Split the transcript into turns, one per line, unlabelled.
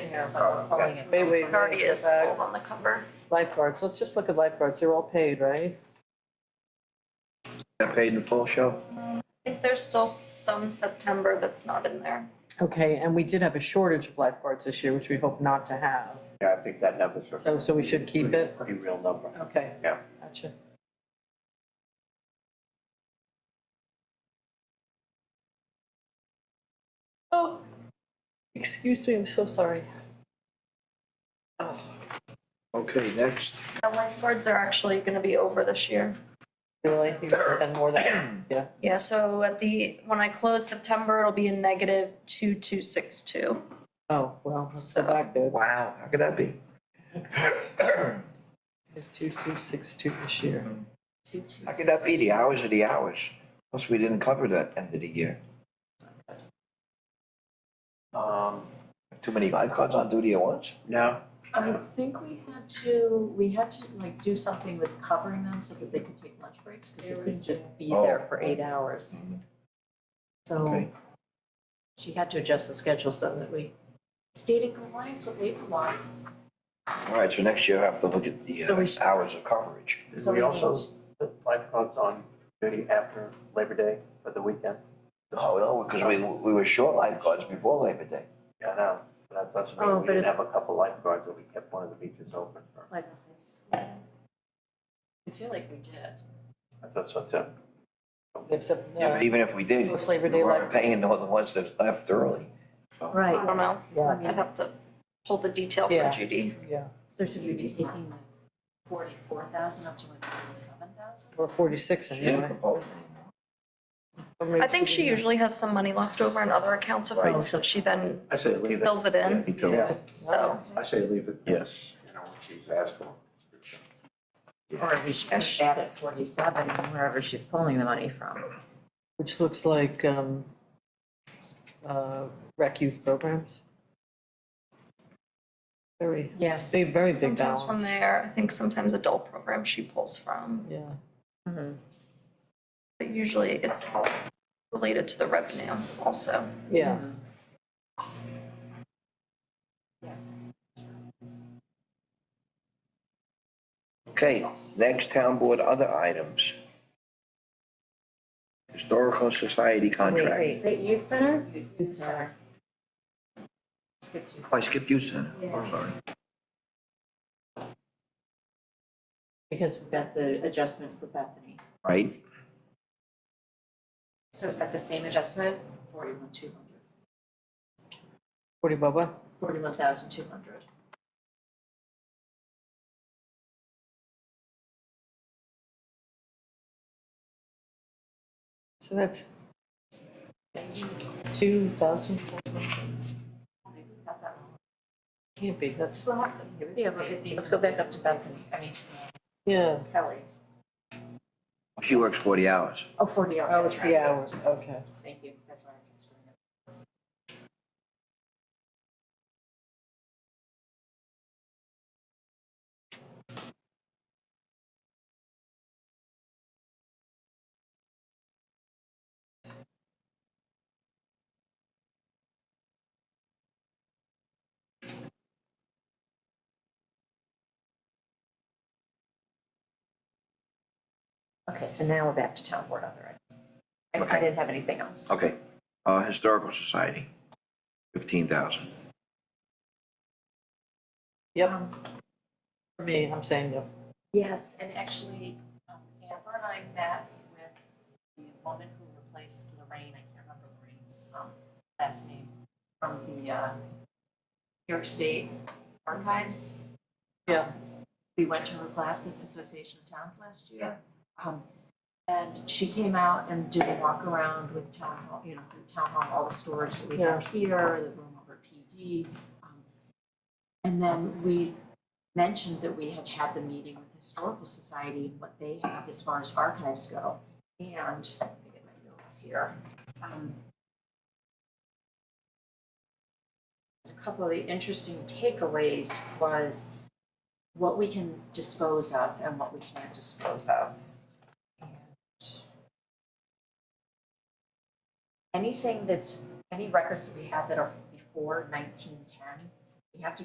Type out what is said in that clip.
here, but we're pulling it.
Wait, wait,
It already is
Uh,
pulled on the cover.
Lifeguards, let's just look at lifeguards, they're all paid, right?
Got paid in full show?
I think there's still some September that's not in there.
Okay, and we did have a shortage of lifeguards this year, which we hope not to have,
Yeah, I think that number's a
so, so we should keep it,
pretty real number.
okay,
Yeah.
gotcha. Oh, excuse me, I'm so sorry. Oh,
Okay, next.
The lifeguards are actually gonna be over this year.
Really, you spend more than, yeah,
Yeah, so at the, when I close September, it'll be a negative two two six two.
oh, well, let's go back there,
Wow, how could that be?
two, two, six, two this year.
Two two.
How could that be? The hours are the hours. Plus, we didn't cover that end of the year. Um, too many lifeguards on duty at once? No.
I think we had to, we had to like do something with covering them so that they could take lunch breaks, cause they couldn't just be there
Oh.
for eight hours.
Mm-hmm.
Mhm.
So
Mm.
Okay.
she had to adjust the schedule so that we stayed in compliance with labor laws.
All right, so next year I have to look at the
So we
uh,
should-
hours of coverage.
Did
So
we
we
also
need-
put lifeguards on duty after Labor Day for the weekend?
Oh, no, because we, we were short lifeguards before Labor Day.
Yeah, I know, but that's, that's, what I
Oh,
mean. we
but
didn't
if-
have a couple lifeguards, but we kept one of the beaches open for,
Like, it's- I feel like we did.
that's- that's what's up.
If the,
Yeah, but even if we did,
Most Labor
we
Day
weren't
lifeguards.
paying the the ones that left early.
I don't know,
yeah,
I'd have to pull the detail
Yeah.
for Judy.
yeah,
So should we be taking the forty-four thousand up to like forty-seven thousand?
or forty-six
She didn't
anyway.
propose anymore.
I think she usually has some money left over in other accounts of hers that she then
I say leave
fills it in,
Yeah.
so.
I say leave it, yes, you know, what she's asked for.
Or we should
Yes.
add it forty-seven wherever she's pulling the money from.
Which looks like, um, uh, rec youth programs. Very,
Yes.
big, very big
Sometimes from
balance,
there, I think sometimes adult program she pulls from,
yeah.
Mm-hmm.
but usually it's all related to the revenue also.
Yeah,
Okay, next town board, other items. Historical Society contract.
Wait, youth center? Youth center. Skip youth.
Oh, I skipped you, Senator.
Yeah.
I'm sorry.
Because we've got the adjustment for Bethany.
Right?
So is that the same adjustment? Forty-one, two hundred.
forty Bubba,
Forty-one thousand, two hundred.
so that's two thousand four hundred,
Maybe we got that wrong.
can't be, that's,
We'll have to, yeah, look at these. Let's go back up to Bethany, I mean,
yeah.
Kelly.
She works forty hours.
Oh, forty hours.
Oh, it's the hours, okay.
Thank you, that's why I can screw it up. Okay, so now we're back to town board other items. I, I
Okay.
didn't have anything else.
Okay, uh, Historical Society, fifteen thousand.
Yep. For me, I'm saying yep.
Yes, and actually, um, Amber and I met with the woman who replaced Lorraine, I can't remember Lorraine's, um, last name, from the, uh, New York State Archives.
Yeah.
We went to her class at Association of Towns last year. Um, and she came out and did a walk around with town hall, you know, through town hall, all the storage that we have here, the room over at PD. um, And then we mentioned that we had had the meeting with the Historical Society and what they have as far as archives go. And, let me get my notes here. Um, A couple of the interesting takeaways was what we can dispose of and what we can't dispose of. And Anything that's, any records that we have that are before nineteen ten you have to